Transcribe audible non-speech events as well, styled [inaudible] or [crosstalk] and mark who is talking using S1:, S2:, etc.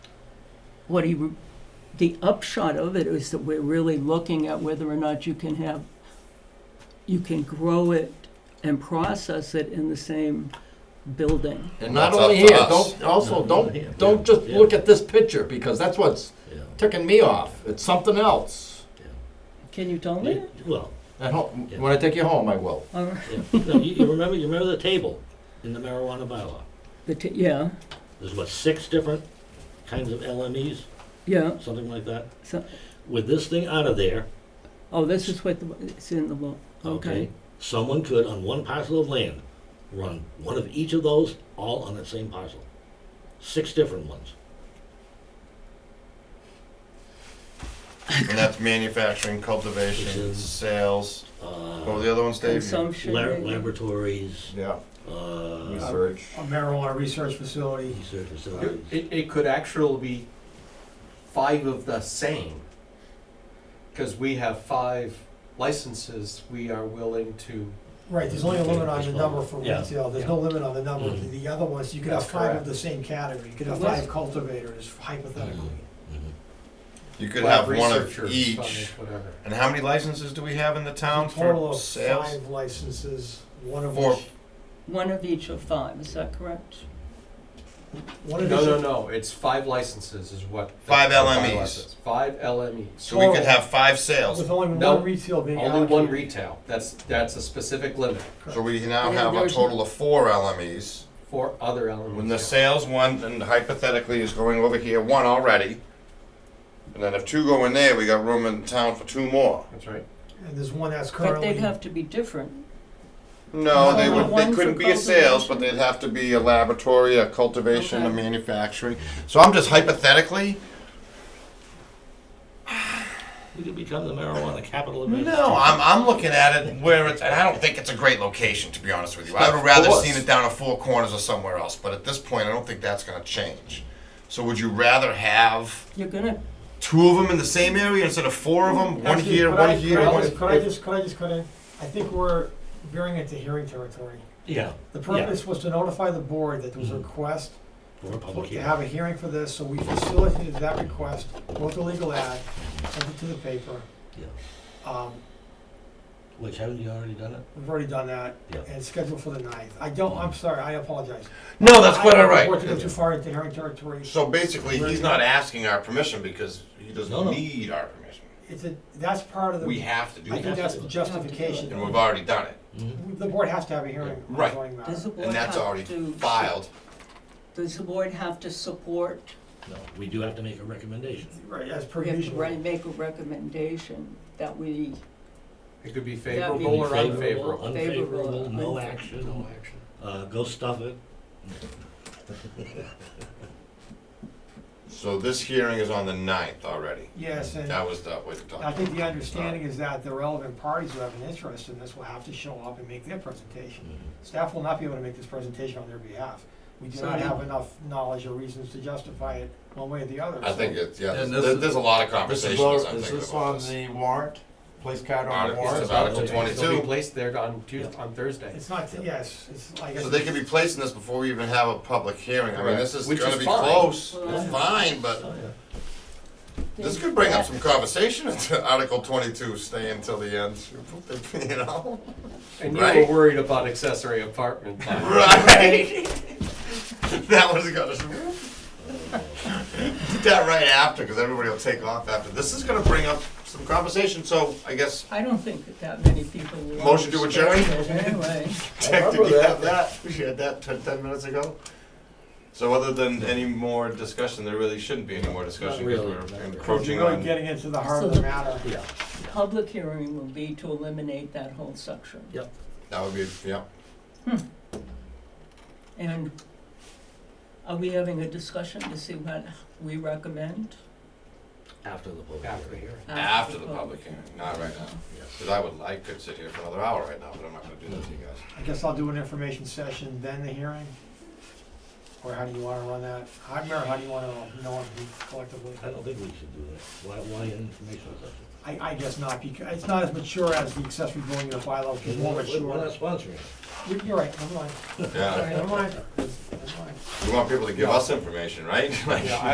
S1: What he, re- the upshot of it is that we're really looking at whether or not you can have, you can grow it and process it in the same building.
S2: And not
S3: That's up
S2: only
S3: to
S2: here,
S3: us.
S2: don't, also,
S4: No, yeah,
S2: don't, don't just
S4: yeah.
S2: look at this picture, because that's what's
S4: Yeah,
S2: ticking me off. It's something else.
S4: yeah.
S1: Can you tell me?
S4: You- Well,
S2: At home,
S4: Yeah.
S2: when I take you home, I will.
S1: All right.
S4: yeah. No, you, you remember, you remember the table in the marijuana bylaw?
S1: The t- yeah,
S4: There's what, six different kinds of LMEs,
S1: yeah.
S4: something like that?
S1: So,
S4: With this thing out of there,
S1: oh, this is what the, it's in the law.
S4: okay, someone could on one parcel of land run one of each of those all on the same parcel. Six different ones.
S3: And that's manufacturing, cultivation,
S4: Which is-
S3: sales. What were
S4: Uh,
S3: the other ones, Dave?
S1: Consumption.
S4: lab-
S1: maybe?
S4: laboratories,
S2: Yeah.
S4: uh,
S2: Research.
S5: a marijuana research facility.
S4: research facilities.
S6: It, it could actually be five of the same, because we have five licenses we are willing to,
S5: Right, there's only a limit on the number for
S4: Yeah. Mm-hmm.
S5: retail, there's no limit on the number of the other ones, you could have
S6: That's
S5: five of
S6: correct.
S5: the same category, you could have
S1: Yes.
S5: five cultivators hypothetically.
S4: Mhm.
S3: You could have
S6: lab
S3: one of
S6: researchers,
S3: each.
S6: five, whatever.
S3: And how many licenses do we have in the town
S5: Total
S3: for
S5: of
S3: sales?
S5: five licenses, one of
S3: Four.
S5: which,
S1: One of each of five, is that correct?
S5: one
S6: No,
S5: of
S6: no,
S5: these,
S6: no, it's five licenses is what.
S3: Five
S6: the bylaw
S3: LMEs.
S6: says. Five LMEs,
S3: So we could
S5: Total.
S3: have five sales.
S5: with only
S6: No,
S5: one retail being
S6: only one
S5: allocated.
S6: retail, that's, that's a specific limit
S3: So we now
S1: Yeah,
S3: have a
S1: there's-
S3: total of four LMEs.
S6: for other
S3: When the
S6: LMEs.
S3: sales one, and hypothetically is going over here, one already. And then if two go in there, we got room in town for two more.
S6: That's right.
S5: And there's one that's
S1: But they'd
S5: currently,
S1: have to be different.
S3: No,
S5: No,
S3: they
S5: no,
S3: would,
S1: one
S3: they
S1: for
S3: couldn't be a sales, but
S1: cultivation.
S3: they'd have to be a laboratory, a cultivation, a
S1: Okay.
S3: manufacturing. So I'm just hypothetically,
S4: We could become the marijuana capital of
S3: no,
S4: Massachusetts.
S3: I'm, I'm looking at it where it's, and I don't think it's a great location, to be honest with you. I would have
S2: Of
S3: rather
S2: course.
S3: seen it down at Four Corners or somewhere else, but at this point, I don't think that's gonna change. So would you rather have
S1: You're gonna,
S3: two of them in the same area instead of four of them? One
S5: Actually,
S3: here,
S5: could I-
S3: one
S5: could
S3: here,
S5: I
S3: one
S5: just- Could I just, could I just, could I, I think we're veering into hearing territory.
S4: Yeah.
S5: The
S4: Yeah.
S5: purpose was to notify the board that there was a
S3: Mm-hmm.
S4: Mhm.
S5: request
S4: For a public
S5: to
S4: hearing.
S5: have a hearing for this, so we facilitated that request, wrote the legal ad, sent it to the paper.
S4: Yeah.
S5: Um,
S4: Which, haven't you already done it?
S5: We've already done that,
S4: Yeah.
S5: and it's scheduled for the ninth. I don't, I'm sorry, I apologize.
S3: No, that's quite all
S5: I don't want to go
S3: right.
S5: too far into hearing territory.
S3: So basically, he's not asking our permission because he
S4: No,
S3: doesn't
S4: no.
S3: need our permission.
S5: It's a, that's part of
S3: We
S5: the,
S3: have to do
S5: I
S3: that,
S5: think that's the justification.
S3: and we've already done it.
S4: Mhm.
S5: The board has to have a hearing on
S3: Right.
S5: zoning matter.
S1: does the board
S3: And that's
S1: have
S3: already
S1: to-
S3: filed.
S1: Does the board have to support,
S4: No, we do have to make a recommendation.
S5: Right, as per
S1: we have to
S5: usual.
S1: re- make a recommendation that we,
S6: It could be
S1: That'd be
S6: favorable or
S4: Favorable,
S6: unfavorable.
S4: Unfavorable, no
S1: Favorable.
S4: action. No action. Uh, go stuff it.
S3: So this hearing is on the ninth already.
S5: Yes, and
S3: That Uh. was the way to
S5: I
S3: talk.
S5: think the understanding is that the relevant parties who have an interest in this will have to show up and make their presentation.
S3: Mm-hmm.
S5: Staff will not be able to make this presentation on their behalf. We do
S1: So
S5: not
S1: you-
S5: have enough knowledge or reasons to justify it one way or the other.
S3: I
S5: so-
S3: think it's, yeah,
S2: And this
S3: there's, there-
S2: is-
S3: there's a lot of
S2: This is,
S3: conversations,
S2: all-
S3: I'm
S2: is
S3: thinking
S2: this
S3: about
S2: on
S3: this.
S2: the warrant? Place card on the
S3: Article-
S2: warrant?
S3: This is Article
S4: Article
S6: They'll be
S3: twenty-two.
S6: placed there on Tuesday, on Thursday.
S5: It's not, yes, it's, I guess.
S3: So they could be placing this before we even have a public hearing. I mean,
S2: Correct.
S3: this is
S6: Which
S3: gonna
S6: is
S3: be
S6: fine.
S3: close. It's
S1: Well,
S3: fine, but
S4: Oh, yeah.
S3: this could bring up some conversation into [laughs] Article twenty-two, stay until the end, [laughs] you know?
S6: And you
S3: Right.
S6: were worried about accessory apartment. bylaw.
S3: Right. [laughs] that was gonna. [laughs] Did that right after, because everybody will take off after. This is gonna bring up some conversation, so I guess
S1: I don't think that that many people will.
S3: Motion to adjourn?
S1: understand it Anyway,
S3: Tech, did
S2: remember
S3: you have
S2: that.
S3: that? We had that ten, ten minutes ago. So other than any more discussion, there really shouldn't be any more discussion because
S4: really, not
S3: we're
S4: really.
S3: encroaching
S5: really
S3: on.
S5: getting into the heart of the matter.
S4: Yeah.
S1: public hearing will be to eliminate that whole section.
S3: That would be, yeah.
S1: And are we having a discussion to see what we recommend?
S4: After the public
S6: After the
S4: hearing.
S6: hearing.
S3: After the public hearing, not right now.
S4: Yeah.
S3: Because I would, I could sit here for another hour right now, but I'm not gonna do that to you
S4: [laughs]
S3: guys.
S5: I guess I'll do an information session, then the hearing? Or how do you wanna run that? How, Mayor, how do you wanna know it collectively?
S4: I don't think we should do that. Why, why an informational session?
S5: I, I guess not, because it's not as mature as the accessory building unit bylaw, which is more
S4: We're- We're
S5: mature.
S4: not sponsoring.
S5: You're- You're right, never mind,
S3: Yeah,
S5: never mind, never mind.
S3: we want people to give us information, right? [laughs] Like-
S6: Yeah, I-